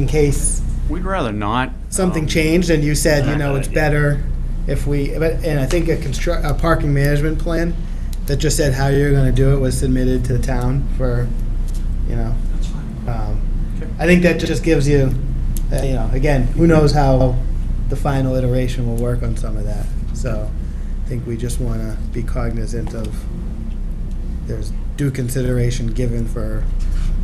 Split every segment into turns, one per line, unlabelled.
in case
We'd rather not.
something
um,
changed and you said, you know,
Not a
it's
good idea.
better if we, but, and I think a construct, a parking management plan that just said how you're gonna do it was submitted to the town for, you know.
That's fine.
um,
Okay.
I think that just gives you, uh, you know, again, who knows how the final iteration will work on some of that. So I think we just wanna be cognizant of, there's due consideration given for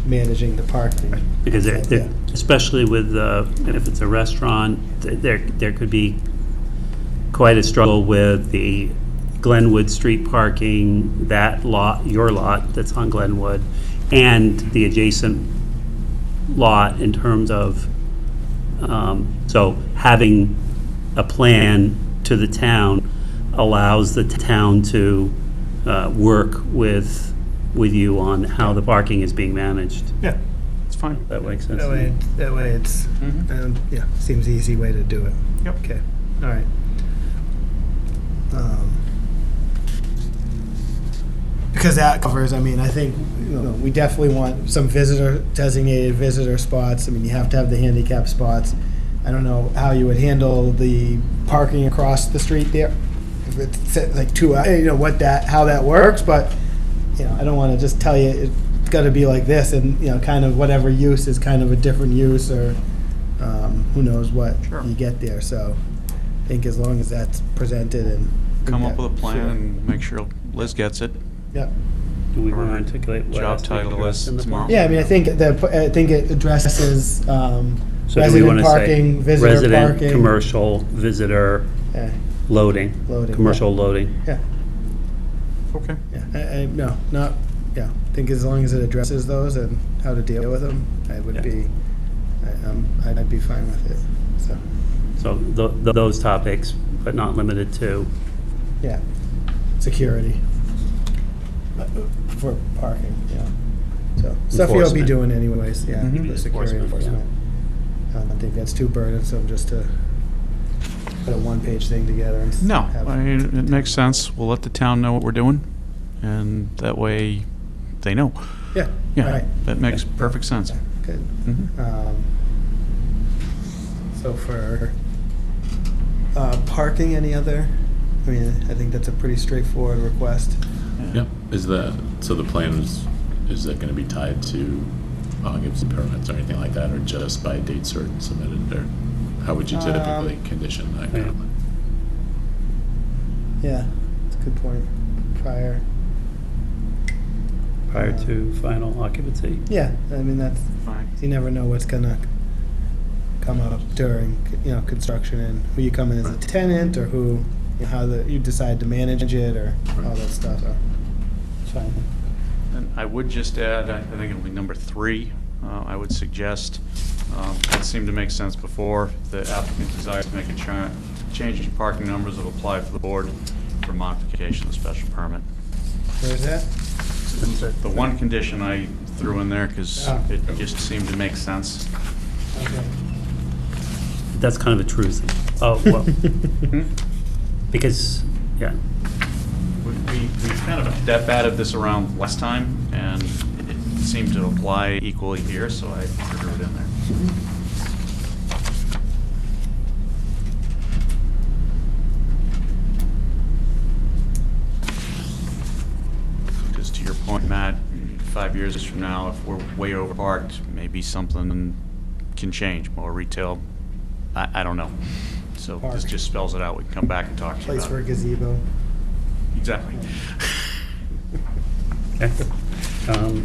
managing the parking.
Because they're,
Yeah.
they're- especially with, uh, if it's a restaurant, th- there, there could be quite a struggle with the Glenwood Street parking, that lot, your lot that's on Glenwood, and the adjacent lot in terms of, um, so having a plan to the town allows the town to uh, work with, with you on how the parking is being managed.
Yeah.
It's fine.
That makes sense.
That
to me.
way, that way it's,
Mhm.
um, yeah, seems the easy way to do it.
Yep.
Okay, all right. Um, Because that covers, I mean, I think, you know, we definitely want some visitor, designated visitor spots. I mean, you have to have the handicap spots. I don't know how you would handle the parking across the street there. If it's uh, like two, uh, you know, what that, how that works, but you know, I don't want to just tell you it's got to be like this, and you know, kind of whatever use is kind of a different use, or um, who knows what
Sure.
you get there. So, I think as long as that's presented and
Come up with a
Sure.
plan and make sure Liz gets it.
Yep.
Do we want to
Or
articulate what
job
has to be
title
addressed
is
in the
tomorrow.
plan?
Yeah, I mean, I think the I think it addresses um,
So do we
resident
wanna say
parking, visitor parking,
Resident, commercial, visitor,
Yeah,
loading.
Loading, yeah.
Commercial loading.
yeah,
Okay.
yeah. I, I, no, not yeah. I think as long as it addresses those and how to deal with them, I would
Yeah.
be, I, um, I'd I'd be fine with it. So,
So tho- tho- those topics, but not limited to.
yeah, security Uh, for parking, yeah. So stuff you'll be
Enforcement.
doing anyways, yeah.
Mhm.
the Security
Enforcement,
enforcement. I don't think that's too burdensome just to put a one-page thing together and. s-
No,
have-
I mean, uh, it makes sense. We'll let the town know what we're doing, and that way they know.
Yeah, all
Yeah,
right,
that makes perfect sense.
good.
Mhm.
Um, So for uh, parking, any other, I mean, I think that's a pretty straightforward request.
Yep, is the, so the plan is, is that gonna be tied to occupancy permits or anything like that, or just by date certain submitted, or how would you typically
Um,
condition that
Yeah.
currently?
Yeah, that's a good point. Prior,
Prior to final occupancy.
yeah, I mean, that's,
Fine.
you never know what's gonna come up during, you know, construction and who you come in as a tenant or who, you know, how the, you decide to manage it or all that stuff, so. Fine.
And I would just add, I I think it'll be number three, uh, I would suggest, um, it seemed to make sense before, the applicant desires to make a cha- change in parking numbers that apply for the board for modification of the special permit.
Where's that?
The one condition I threw in there, because
Ah.
it just seemed to make sense.
Okay.
That's kind of intrusive. Oh, well,
Hmm?
because, yeah.
We, we we kind of that batted this around last time, and it seemed to apply equally here, so I threw it in there. Because to your point, Matt, five years from now, if we're way overparked, maybe something can change, more retail, I, I don't know. So this
Park.
just spells it out, we can come back and talk to you about it.
Place for a gazebo.
Exactly.
Okay. Um,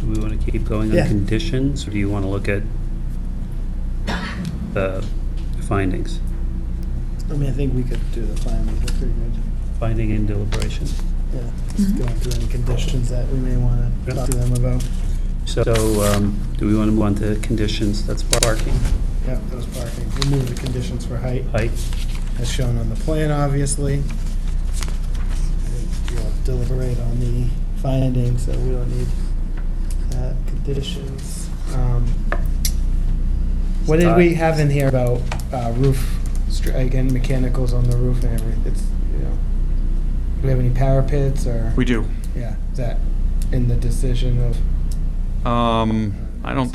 Do we want to keep going
Yeah.
on conditions, or do you want to look at the findings?
I mean, I think we could do the findings, they're pretty good.
Finding and deliberation.
Yeah, just going through any conditions that we may wanna
Yeah.
talk to them about.
So, um, do we want to move on to conditions? That's parking,
Yeah, that was parking. Remove the conditions for height.
height,
as shown on the plan, obviously. I think We'll deliberate on the findings, so we don't need uh, conditions. Um, What did we have in here about uh, roof, str- again, mechanicals on the roof and everything? It's, you know, do we have any parapets or?
We do.
Yeah, is that in the decision of,
Um, I don't